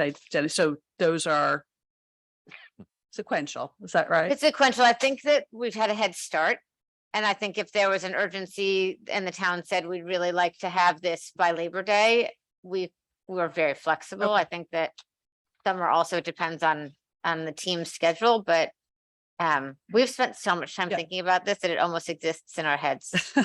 I- Jenny, so those are sequential, is that right? It's sequential. I think that we've had a head start. And I think if there was an urgency and the town said, we'd really like to have this by Labor Day, we were very flexible. I think that summer also depends on, on the team's schedule, but um, we've spent so much time Yeah. thinking about this that it almost exists in our heads. So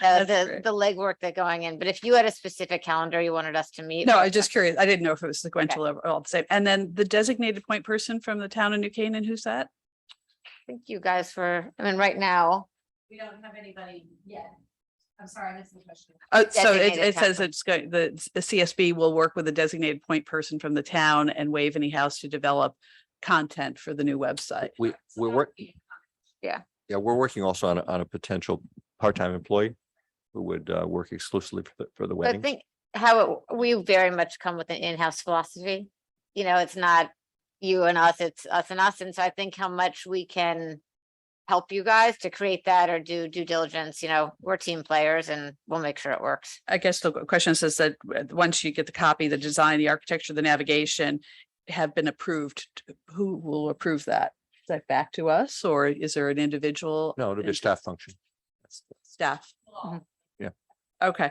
That's the, great. the legwork that going in, but if you had a specific calendar you wanted us to meet. uh, No, we I can- was just curious. I didn't know if it was sequential or all the same. And then the designated point person from the town of New Canaan, who's that? Thank you guys for, I mean, right now, We don't have anybody yet. I'm sorry, I missed the question. Oh, so it, Designated it town says point. it's going, the, s- the CSB will work with a designated point person from the town and Wave Any House to develop content for the new website. We, So we're that work, would be- yeah, we're working also on, a- on a potential part-time employee who would uh, work exclusively for the, for the I wedding. think how it- we very much come with an in-house philosophy. You know, it's not you and us, it's us and us. And so I think how much we can help you guys to create that or do due diligence, you know, we're team players and we'll make sure it works. I guess the question says that uh, once you get the copy, the design, the architecture, the navigation have been approved, t- who will approve that? Is that back to us or is there an individual? No, it'll be a staff function. Staff, Well, okay.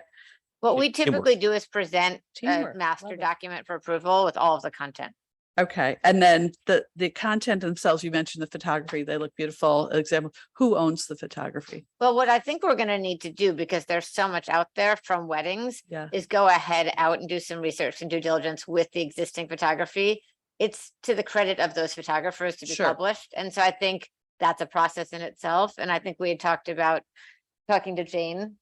What we teamwork. typically do is present a Teamwork, love master it. document for approval with all of the content. Okay, and then the, the content themselves, you mentioned the photography, they look beautiful, example, who owns the photography? Well, what I think we're gonna need to do, because there's so much out there from weddings, Yeah. is go ahead out and do some research and due diligence with the existing photography. It's to the credit of those photographers to be Sure. published. And so I think that's a process in itself. And I think we had talked about talking to Jane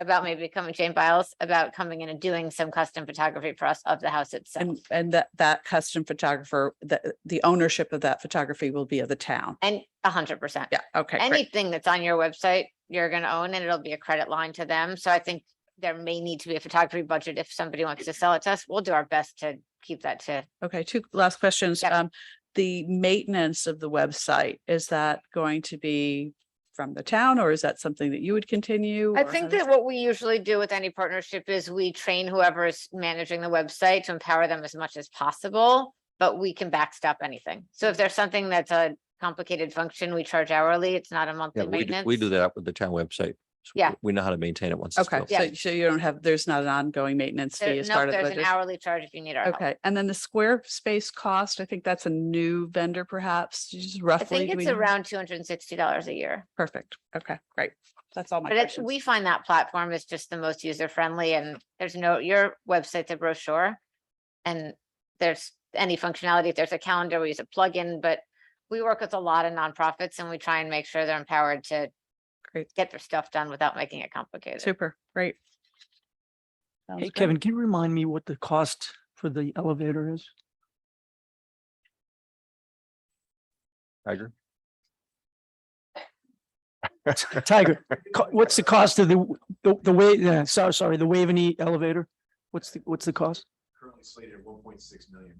about maybe coming, Jane Biles, about coming in and doing some custom photography for us of the house itself. And, and that, that custom photographer, the, the ownership of that photography will be of the town. And a hundred percent. Yeah, okay, great. anything that's on your website, you're gonna own and it'll be a credit line to them. So I think there may need to be a photography budget if somebody wants to sell it to us. We'll do our best to keep that to. Okay, two last questions. Yep. Um, the maintenance of the website, is that going to be from the town or is that something that you would continue? I or how think does- that what we usually do with any partnership is we train whoever is managing the website to empower them as much as possible, but we can backstop anything. So if there's something that's a complicated function, we charge hourly. It's not a Yeah, monthly we, do- maintenance. we do that with the town website. So Yeah. We know how to maintain it once. it's Okay, built. Yeah. so, so you don't have, there's not an ongoing maintenance There- fee as no, part of the There's an budget? hourly charge if you need our help. Okay, and then the square space cost, I think that's a new vendor perhaps, just I roughly. think do we it's know? around two hundred and sixty dollars a year. Perfect. Okay, great. That's all my But it's, questions. we find that platform is just the most user friendly and there's no, your website's a brochure. And there's any functionality, if there's a calendar, we use a plugin, but we work with a lot of nonprofits and we try and make sure they're empowered to Great. get their stuff done without making it complicated. Super, great. Sounds Hey, great. Kevin, can you remind me what the cost for the elevator is? Tiger? Tiger, co- what's the cost of the, w- the, the way, yeah, sorry, sorry, the Waveney elevator? What's the, what's the cost? currently slated at one point six million,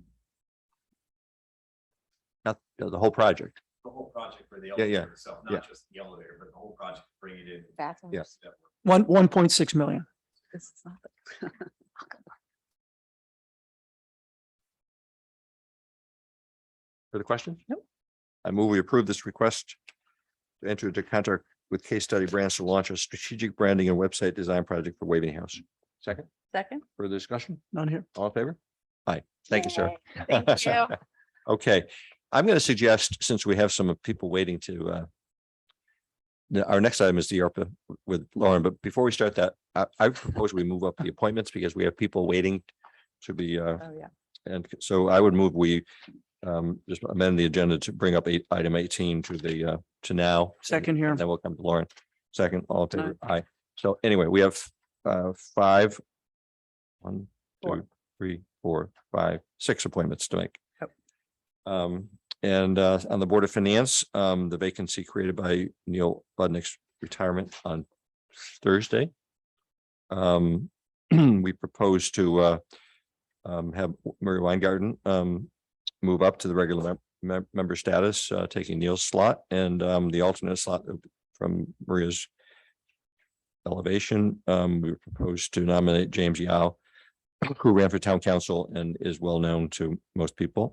Not the the whole project. the whole project for the yeah. elevator itself, Yeah. not just the elevator, but the whole project, bring it in. Bathrooms. Yes. That One, work. one point six million. This is not the- For the question? Nope. I move we approve this request to enter into contract with Case Study Brands to launch a strategic branding and website design project for Waveney House. Second, Second, further discussion? Not here. All in favor? Aye. Thank you, sir. Thank you. Okay, I'm going to suggest, since we have some people waiting to uh. the- our next item is the ARPA with Lauren, but before we start that, I I propose we move up the appointments because we have people waiting to be uh, oh yeah. and so I would move we um just amend the agenda to bring up eight, item eighteen to the uh, to now. and Second here. Then we'll come to Lauren. Second, all in Aye. favor, aye. So anyway, we have uh five. One, Four. two, three, four, five, six appointments to make. Yep. Um, and uh on the Board of Finance, um the vacancy created by Neil Budnick's retirement on Thursday. Um, we propose to uh um have Murray Weingarten um move up to the regular mem- mem- member status, uh taking Neil's slot and um the alternate slot of- from Maria's elevation. Um, we propose to nominate James Yao who ran for town council and is well known to most people.